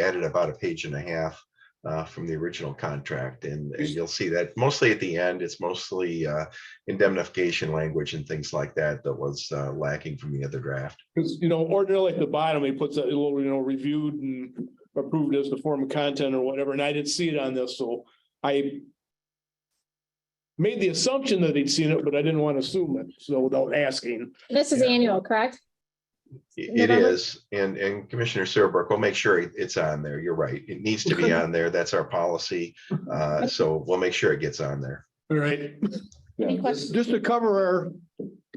added about a page and a half uh, from the original contract, and and you'll see that mostly at the end, it's mostly uh, indemnification language and things like that that was uh, lacking from the other draft. Because, you know, ordinarily at the bottom, he puts a little, you know, reviewed and approved as the form of content or whatever, and I didn't see it on this, so I made the assumption that he'd seen it, but I didn't want to assume it, so without asking. This is Yeah. annual, correct? It it November? is, and, and Commissioner Serbrook will make sure it- it's on there. You're right. It needs to be Okay. on there. That's our policy. Uh, So we'll make sure it gets on there. All right. Any questions? Just to cover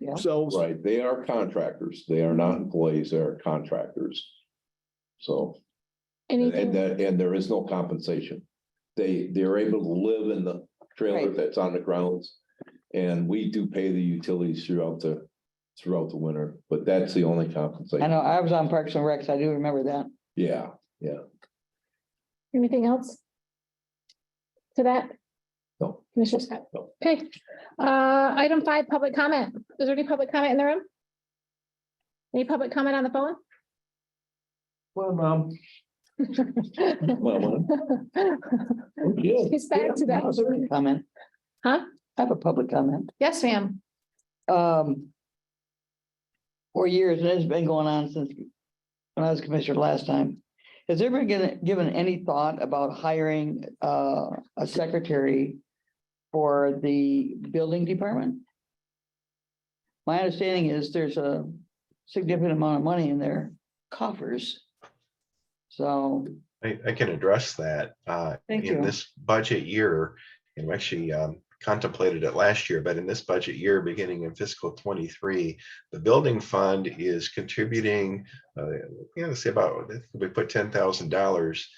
ourselves. Right, they are contractors. They are not employees, they are contractors. So, and and Anything? that, and there is no compensation. They, they're able to live in the trailer Right. that's on the grounds. And we do pay the utilities throughout the, throughout the winter, but that's the only I compensation. know, I was on Parks and Recs, I do remember that. Yeah, Anything else? To that? No. Commissioner Scott? No. Okay. Uh, item five, public comment. Is there any public comment in the room? Any public comment on the phone? well, mom. Well, well. yeah. He's back to I have that. a public Comment. Huh? I have a public comment. Yes, ma'am. Um. For years, and it's been going on since when I was commissioner last time. Has there been given, given any thought about hiring, uh, a secretary for the building department? My understanding is there's a significant amount of money in their coffers. So, I, I can address that. uh, Thank In you. this budget year, and we actually um, contemplated it last year, but in this budget year, beginning in fiscal twenty-three, the building fund is contributing, uh, you know, say about, I think we put ten thousand dollars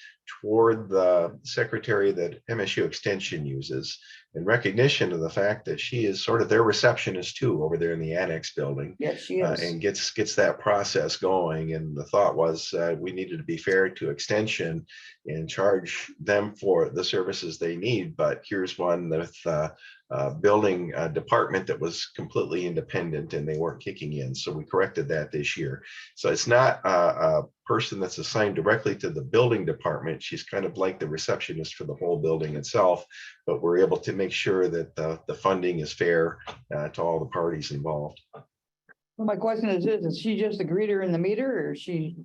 toward the secretary that MSU Extension uses in recognition of the fact that she is sort of their receptionist too over there in the annex building yes, she uh, is. and gets, gets that process going. And the thought was, uh, we needed to be fair to extension and charge them for the services they need. But here's one with, uh, uh, building a department that was completely independent and they weren't kicking in. So we corrected that this year. So it's not a, a person that's assigned directly to the building department. She's kind of like the receptionist for the whole building itself. But we're able to make sure that the, the funding is fair, uh, to all the parties involved. Well, My question is, is is she just a greeter in the meter or is she?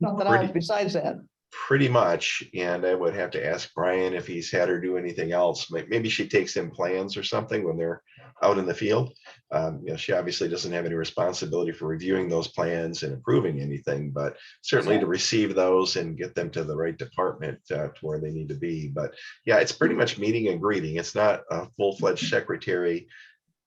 Nothing Pretty- else besides that? Pretty much, and I would have to ask Brian if he's had her do anything else. May- Maybe she takes in plans or something when they're out in the field. Um, you know, she obviously doesn't have any responsibility for reviewing those plans and approving anything, but certainly to receive those and get them to the right department uh, to where they need to be. But yeah, it's pretty much meeting and greeting. It's not a full-fledged secretary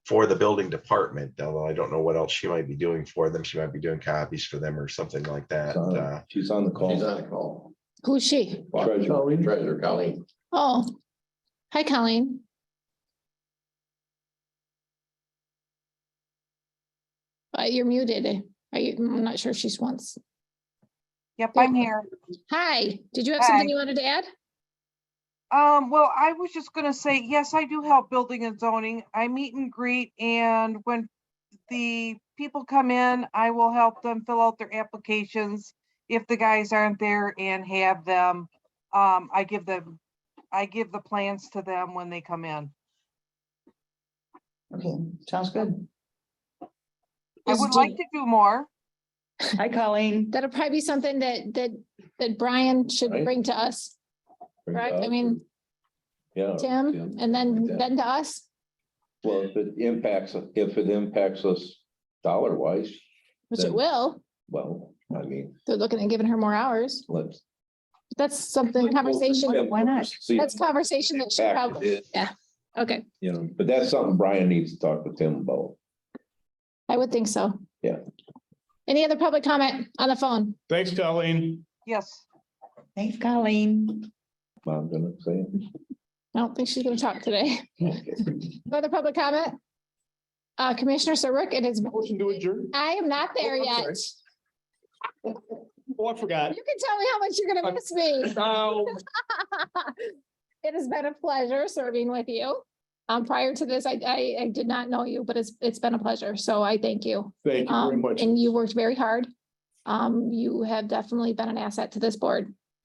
for the building department, although I don't know what else she might be doing for them. She might be doing copies for them or something like that. Uh, So, She's on the call. She's on the call. Who's she? Treasurer. Treasurer Colleen. Oh, hi, Colleen. Uh, you're muted. Are you, I'm not sure if she's once. Yep, Yeah. I'm here. Hi, did you have Hi. something you wanted to add? Um, well, I was just gonna say, yes, I do help building and zoning. I meet and greet and when the people come in, I will help them fill out their applications. If the guys aren't there and have them, um, I give them, I give the plans to them when they come in. Okay, sounds good. I Is would do- like to do more. Hi, Colleen. That'll probably be something that, that, that Brian should Right. bring to us, right? I mean, Yeah. Tim, and then, then to us. Well, if it impacts, if it impacts us dollar wise, Which it Then- will. well, I mean, They're looking at giving her more hours. let's. That's something, conversation, why not? See- that's conversation that should Fact probably, is, okay, You know, but that's something Brian needs to talk to Tim about. I would think so. Yeah. Any other public comment on the phone? Thanks, Colleen. Yes. Thanks, Colleen. I'm gonna say. I don't think she's gonna talk today. it. No Other public comment? Uh, Commissioner Serbrook, it is, Motion to adjourn. I am not there Oh, I'm yet. sorry. Oh, I forgot. You can tell me how much you're gonna I'm- miss me. Now, It has been a pleasure serving with you. Um, prior to this, I, I, I did not know you, but it's, it's been a pleasure, so I thank you. thank you very Um, much. and you worked very hard. Um, you have definitely been an asset to this board.